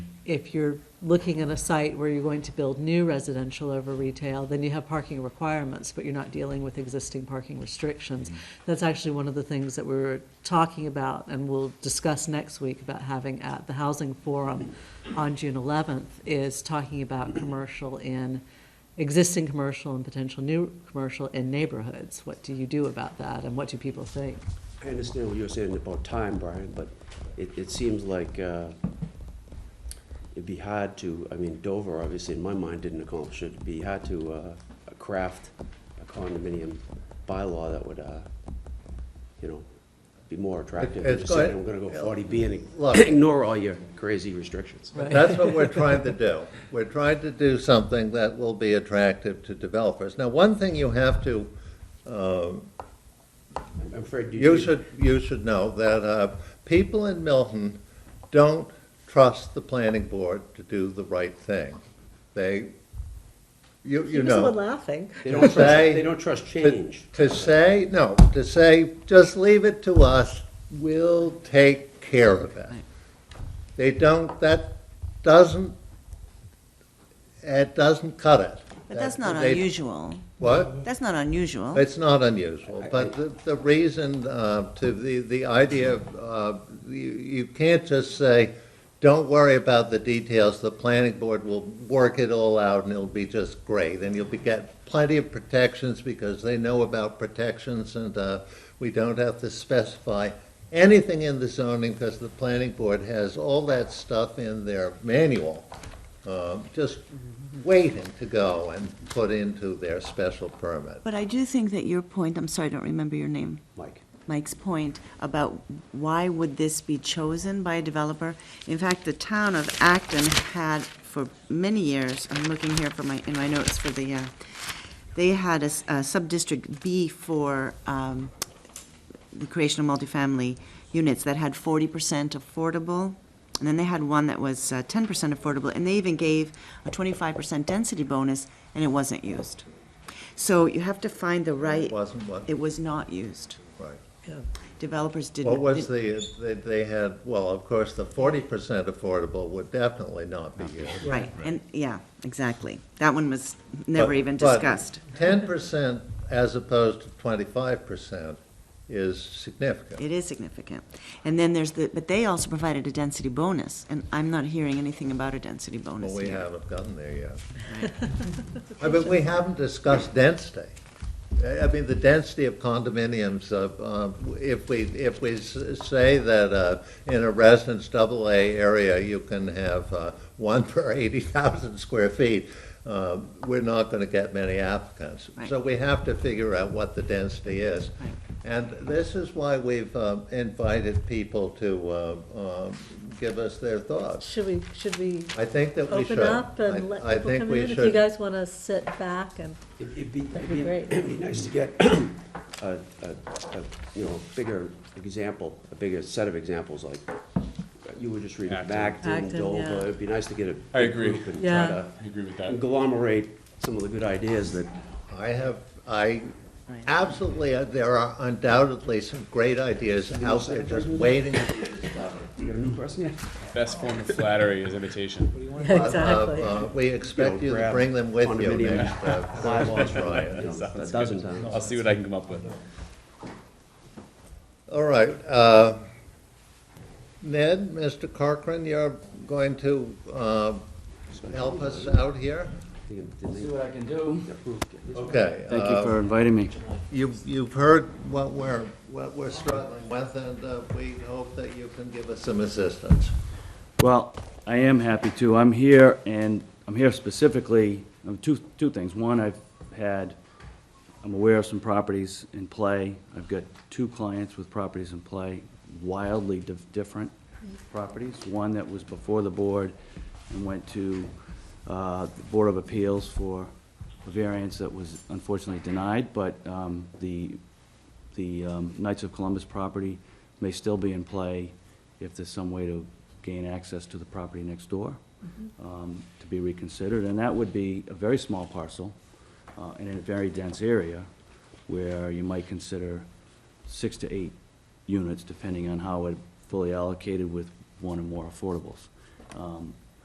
if you're looking at a site where you're going to build new residential over retail, then you have parking requirements, but you're not dealing with existing parking Mm-hmm. restrictions. That's actually one of the things that we were talking about and we'll discuss next week about having at the Housing Forum on June 11th, is talking about commercial in, existing commercial and potential new commercial in neighborhoods. What do you do about that and what do people think? I understand what you're saying about time, Brian, but it, it seems like, uh, it'd be hard to, I mean, Dover, obviously, in my mind, didn't accomplish it. It'd be hard to, uh, craft a condominium bylaw that would, uh, you know, be more attractive than it's just saying, I'm good. gonna go forty B and Look. ignore all your crazy restrictions. That's what we're trying to do. We're trying to do something that will be attractive to developers. Now, one thing you have to, I'm afraid you. you should, you should know that uh, people in Milton don't trust the planning board to do the right thing. They, you, you know. laughing. They don't trust, say- they don't trust To- change. To say, no, to say, just leave it to us, we'll take care of it. They don't, that doesn't, it doesn't cut it. But that's not They- unusual. What? That's not unusual. It's not unusual, but the, the reason uh, to the, the idea, of, uh, you, you can't just say, don't worry about the details, the planning board will work it all out and it'll be just great. And you'll be, get plenty of protections because they know about protections and uh, we don't have to specify anything in the zoning because the planning board has all that stuff in their manual, um, just waiting to go and put into their special permit. But I do think that your point, I'm sorry, I don't remember your name, Mike, Mike's point about why would this be chosen by a developer? In fact, the town of Acton had for many years, I'm looking here for my, in my notes for the, uh, they had a, s- a sub-district B for, um, the creation of multifamily units that had forty percent affordable, and then they had one that was uh, ten percent affordable, and they even gave a twenty-five percent density bonus, and it wasn't used. So you have to find the right. wasn't what? It was not used. Right. Developers didn't. What was didn't- the, uh, they, they had, well, of course, the forty percent affordable would definitely not be used. Right, and, yeah, exactly. That one was never But- even but discussed. Ten percent as opposed to twenty-five percent is significant. It is significant. And then there's the, but they also provided a density bonus, and I'm not hearing anything about a density Well, bonus we here. haven't gotten there yet. I mean, we haven't discussed density. I I mean, the density of condominiums, uh, um, if we, if we s- say that uh, in a residence double A area, you can have uh, one per eighty thousand square feet, um, we're not gonna get many applicants. Right. So we have to figure out what the density is. Right. And this is why we've um, invited people to uh, um, give us their thoughts. Should we, should we I think that we should. open up I- and let I people think come we in? If you should. guys want to sit back and, It'd it'd be, it'd That'd be be- great. it'd be nice to get a, a, a, you know, bigger example, a bigger set of examples, like you were just reading Acton. Acton, Acton, Dover. yeah. It'd be nice to get a I big agree. group and try Yeah. to I agree with that. agglomerate some of the good ideas that, I have, I Right. absolutely, uh, there are undoubtedly some great ideas out there just waiting. uh, you got a new person yet? Best form of flattery is imitation. Uh, exactly. uh, We expect you to grab bring them with you condominium next, uh, bylaws, Ryan. you know, a Sounds dozen good. times. I'll see what I can come up with. All right, uh, Ned, Mr. Corcoran, you're going to uh, help us out here? See what I can do. Okay. Thank uh, you for inviting me. You've, you've heard what we're, what we're struggling with, and uh, we hope that you can give us some assistance. Well, I am happy to. I'm here, and I'm here specifically, um, two, two things. One, I've had, I'm aware of some properties in play. I've got two clients with properties in play, wildly dif- different properties. One that was before the board and went to uh, the Board of Appeals for a variance that was unfortunately denied, but um, the the um, Knights of Columbus property may still be in play if there's some way to gain access to the property next door um, to be reconsidered. And that would be a very small parcel uh, and in a very dense area where you might consider six to eight units, depending on how it fully allocated with one or more affordables. Um,